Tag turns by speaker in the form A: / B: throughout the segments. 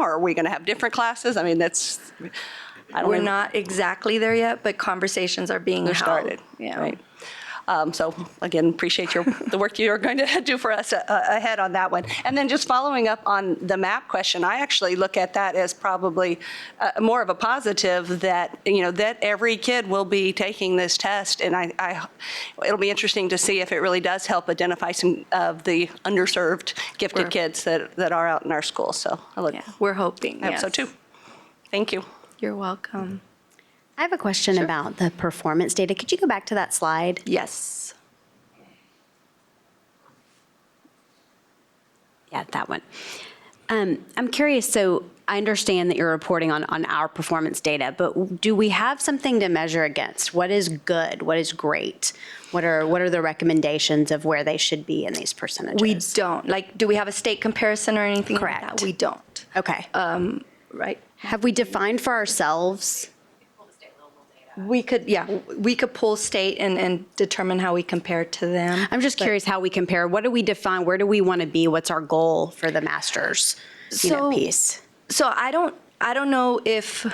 A: Or are we going to have different classes? I mean, that's, I don't
B: We're
A: even-
B: not exactly there yet, but conversations are being
A: They're
B: held.
A: started.
B: Yeah.
A: right. Um, So again, appreciate your, the work you are going to do for us uh, ahead on that one. And then just following up on the map question, I actually look at that as probably uh, more of a positive that, you know, that every kid will be taking this test. And I- I, it'll be interesting to see if it really does help identify some of the underserved gifted
B: Sure.
A: kids that, that are out in our schools. So I look,
B: Yeah, We're hoping,
A: I hope so
B: yes.
A: too. Thank you.
B: You're welcome.
C: I have a question about the performance data. Could you go back to that slide?
B: Yes.
C: Yeah, that one. Um, I'm curious, so I understand that you're reporting on, on our performance data, but do we have something to measure against? What is good? What is great? What are, what are the recommendages of where they should be in these percentages?
B: We don't, like, do we have a state comparison or anything like that?
C: Correct.
B: We don't,
C: Okay.
B: right?
C: uh, Have we defined for ourselves?
B: We could, yeah, we could pull state and, and determine how we compare to them.
C: I'm just curious how we compare. What do we define? Where do we want to be? What's our goal for the master's, you know,
B: So-
C: piece?
B: So I don't, I don't know if,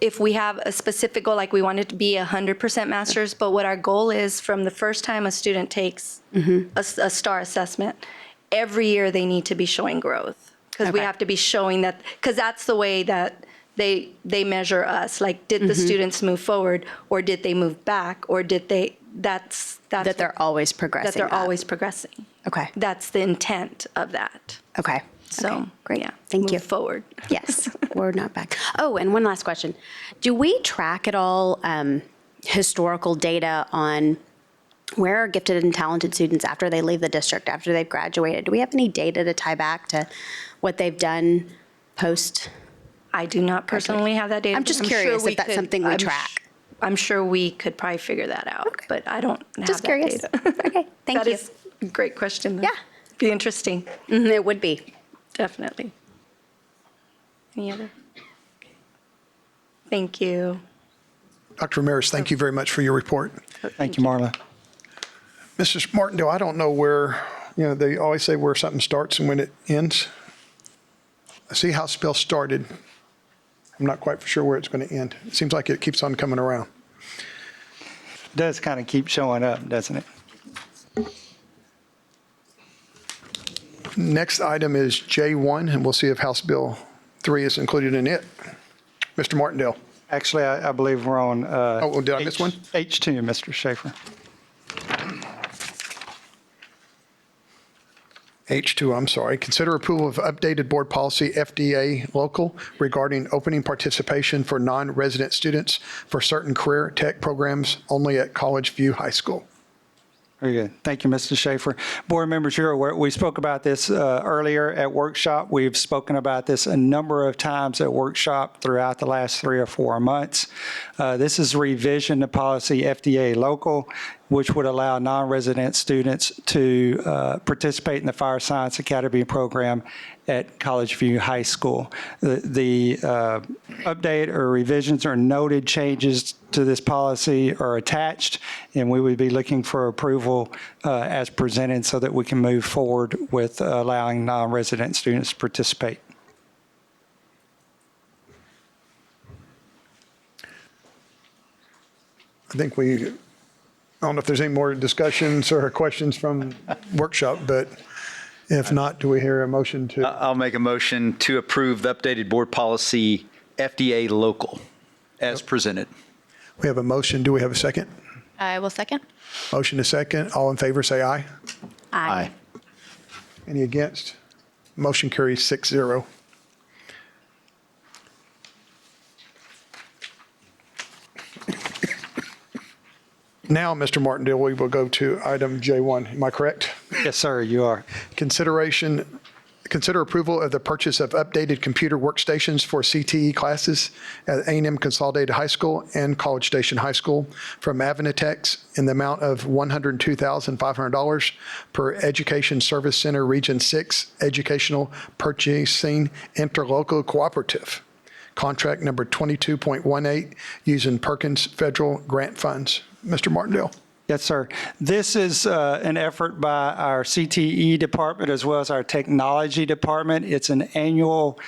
B: if we have a specific goal, like we want it to be 100% masters, but what our goal is from the first time a student takes a,
C: Mm-hmm.
B: s- a STAR assessment, every year they need to be showing growth. Because we
C: Okay.
B: have to be showing that, because that's the way that they, they measure us. Like, did
C: Mm-hmm.
B: the students move forward or did they move back? Or did they, that's, that's.
C: That they're
B: what-
C: always progressing
B: That they're
C: up.
B: always progressing.
C: Okay.
B: That's the intent of that.
C: Okay.
B: So,
C: great.
B: yeah,
C: Thank you.
B: Move forward.
C: Yes, we're not back. Oh, and one last question. Do we track at all um, historical data on where are gifted and talented students after they leave the district, after they've graduated? Do we have any data to tie back to what they've done post?
B: I do not personally have that data.
C: I'm
B: but
C: just
B: sure
C: curious
B: we
C: if that's
B: could-
C: something we
B: I'm sh-
C: track.
B: I'm sure we could probably figure that out, but I don't have
C: Just
B: that
C: curious.
B: data.
C: Okay, thank
B: That
C: you.
B: is a great question. though.
C: Yeah.
B: Be interesting,
C: Mhm, It would be.
B: definitely. Any other? Thank you.
D: Dr. Ramirez, thank you very much for your report.
E: Thank you, Marla.
D: Mrs. Martindale, I don't know where, you know, they always say where something starts and when it ends. I see how spell started. I'm not quite sure where it's going to end. It seems like it keeps on coming around.
E: Does kind of keep showing up, doesn't it?
D: Next item is J1, and we'll see if House Bill 3 is included in it. Mr. Martindale,
E: Actually, I, I believe we're on. uh,
D: Oh, well, did I miss
E: H-
D: one?
E: H2, Mr. Schaefer.
D: H2, I'm sorry. Consider approval of updated board policy FDA local regarding opening participation for non-resident students for certain career tech programs only at College View High School.
E: Very good. Thank you, Mr. Schaefer. Board members, you're aware, we spoke about this uh, earlier at workshop. We've spoken about this a number of times at workshop throughout the last three or four months. Uh, This is revision to policy FDA local, which would allow non-resident students to uh, participate in the Fire Science Academy program at College View High School. The the, uh, update or revisions or noted changes to this policy are attached, and we would be looking for approval uh, as presented so that we can move forward with allowing non-resident students to participate.
D: I think we, I don't know if there's any more discussions or questions from workshop, but if not, do we hear a motion to?
F: I'll make a motion to approve the updated board policy FDA local as presented.
D: We have a motion. Do we have a second?
G: I will second.
D: Motion to second. All in favor, say aye.
C: Aye.
D: Any against? Motion carries six zero. Now, Mr. Martindale, we will go to item J1. Am I correct?
E: Yes, sir, you are.
D: Consideration, consider approval of the purchase of updated computer workstations for CTE classes at a and m Consolidated High School and College Station High School from Avinatex in the amount of $102,500 per Education Service Center Region 6 Educational Purchasing Interlocal Cooperative, contract number 22.18, using Perkins Federal Grant Funds. Mr. Martindale?
E: Yes, sir. This is uh, an effort E by our CTE department as well as our technology department. It's an annual